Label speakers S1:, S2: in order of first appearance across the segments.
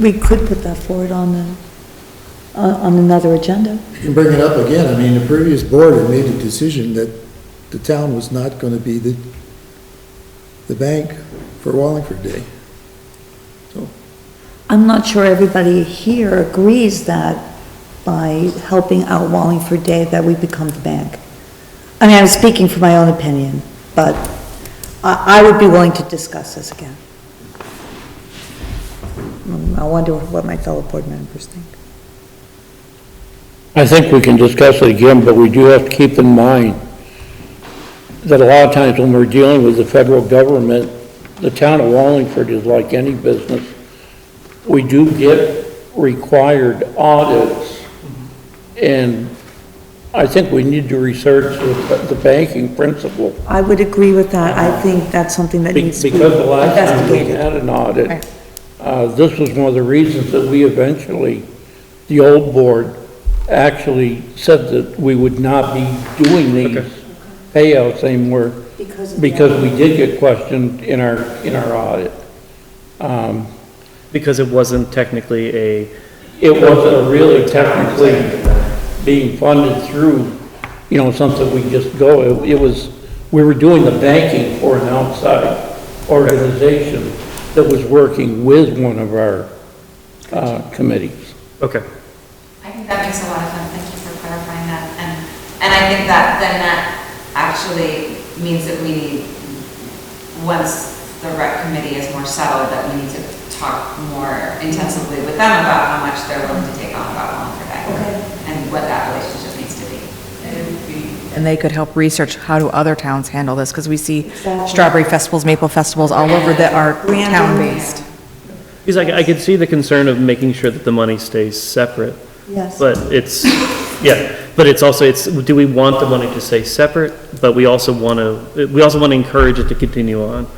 S1: we could put that forward on the, on on another agenda.
S2: You can bring it up again. I mean, the previous board had made a decision that the town was not going to be the, the bank for Wallingford Day. So,
S1: I'm not sure everybody here agrees that by helping out Wallingford Day that we become the bank. I mean, I'm speaking for my own opinion, but I, I would be willing to discuss this again. Mm, I wonder what my fellow board members think.
S3: I think we can discuss it again, but we do have to keep in mind that a lot of times when we're dealing with the federal government, the town of Wallingford is like any business. We do get required audits, and I think we need to research the the banking principle.
S1: I would agree with that. I think that's something that
S3: Be-
S1: needs to be
S3: Because the last time we
S1: investigated.
S3: had an
S1: Right.
S3: audit, uh, this was one of the reasons that we eventually, the old board actually said that we would not be doing these payouts anymore because we did get questioned in our, in our audit. Um,
S4: Because it wasn't technically a,
S3: It wasn't really technically being funded through, you know, something we just go, it it was, we were doing the banking for an outside organization that was working with one of our uh, committees.
S4: okay,
S5: I think that makes a lot of sense, thank you for clarifying that, and, and I think that, then that actually means that we need, once the rec committee is more settled, that we need to talk more intensively with them about how much they're willing to take on about Wallingford Day. And what that relationship needs to be.
S6: And they could help research how do other towns handle this, because we see
S1: Exactly.
S6: strawberry festivals, maple festivals all over that are
S1: Random.
S6: town-based.
S4: because I, I could see the concern of making sure that the money stays separate,
S1: Yes.
S4: but it's, yeah, but it's also, it's, do we want the money to stay separate? But we also want to, we also want to encourage it to continue on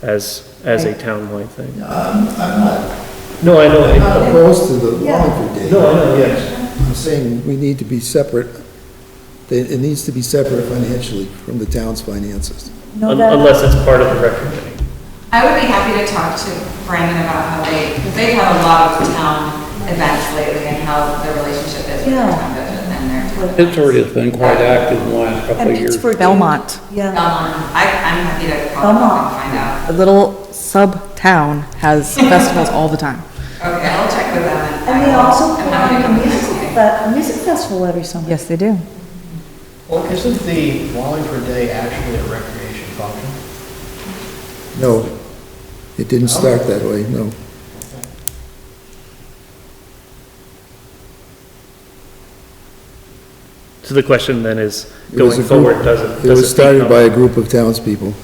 S4: as, as a townwide thing.
S2: Um, I'm, I'm not
S4: No, I know, I-
S2: not opposed to the Wallingford Day.
S4: no, I know, yes,
S2: I'm saying we need to be separate, it, it needs to be separate financially from the town's finances.
S1: No,
S4: Un-
S1: that-
S4: unless it's part of the rec committee.
S5: I would be happy to talk to Brandon about how they, because they've had a lot of town events lately and how the relationship is with
S1: Yeah.
S5: their town budget and their town.
S3: Pittsburgh has been quite active in the last couple
S1: And
S3: of years.
S1: Pittsburgh.
S6: Belmont.
S1: Yeah.
S5: Belmont, I, I'm happy to call
S1: Belmont.
S5: up and find out.
S6: A little sub-town has festivals all the time.
S5: Okay, I'll check with them.
S1: And they
S5: I will-
S1: also
S5: I'm
S1: put
S5: happy
S1: on a
S5: to come to
S1: music,
S5: this meeting.
S1: fe- a music festival every summer.
S6: Yes, they do.
S7: Well, isn't the Wallingford Day actually a recreation function?
S2: No, it didn't start that way, no.
S4: So the question then is,
S2: It was a
S4: going
S2: group-
S4: forward, does it,
S2: It was
S4: does it
S2: started
S4: become?
S2: by a group of townspeople.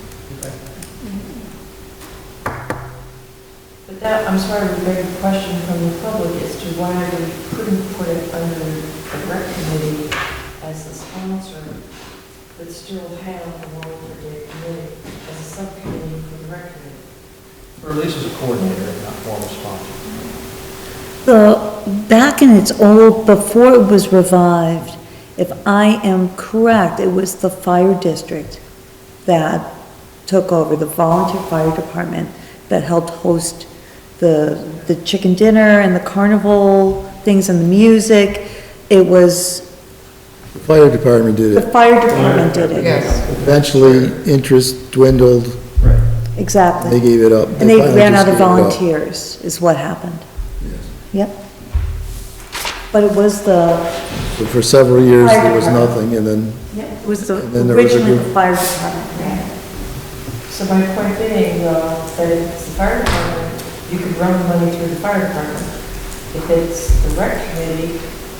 S8: But that, I'm sorry, we beg a question from the public as to why we couldn't put it under the rec committee as a sponsor, but still have the Wallingford Day Committee as a subcommittee for the rec committee.
S7: Or at least as a coordinator, and not formal sponsor?
S1: The, back in its old, before it was revived, if I am correct, it was the fire district that took over, the volunteer fire department that helped host the, the chicken dinner and the carnival things and the music. It was,
S2: The fire department did
S1: the
S2: it.
S1: fire department did it,
S2: Eventually, interest dwindled, they
S1: exactly.
S2: gave it up.
S1: And they
S2: finally
S1: ran
S2: just
S1: out of
S2: gave it up.
S1: volunteers, is what happened.
S2: Yes.
S1: Yep. But it was the,
S2: But For several years,
S1: Fire
S2: there was
S1: department.
S2: nothing, and then
S1: it was the,
S2: And then there was a
S1: originally
S2: group-
S1: the fire department. ran it.
S8: So my point being, though, that if it's the fire department, you could run the money through the fire department. If it's the rec committee,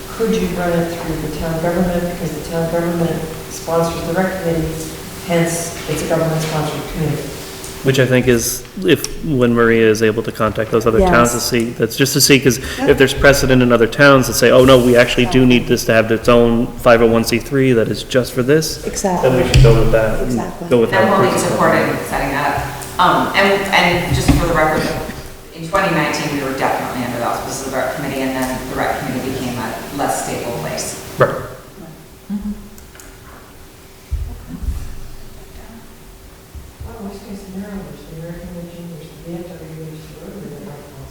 S8: could you run it through the town government? Because the town government sponsors the rec committee, hence it's a government-sponsored committee.
S4: Which I think is, if, when Maria is able to contact those other towns to
S1: Yes.
S4: see, that's just to see, because if there's precedent in other towns that say, oh, no, we actually do need this to have its own 501c3 that is just for this,
S1: Exactly.
S4: then we should go with that. and
S1: Exactly.
S4: Go with that.
S5: I'm fully supporting setting that up. Um, and, and just for the record, in 2019, we were definitely under the auspices of the rec committee, and then the rec committee became a less stable place.
S4: Right.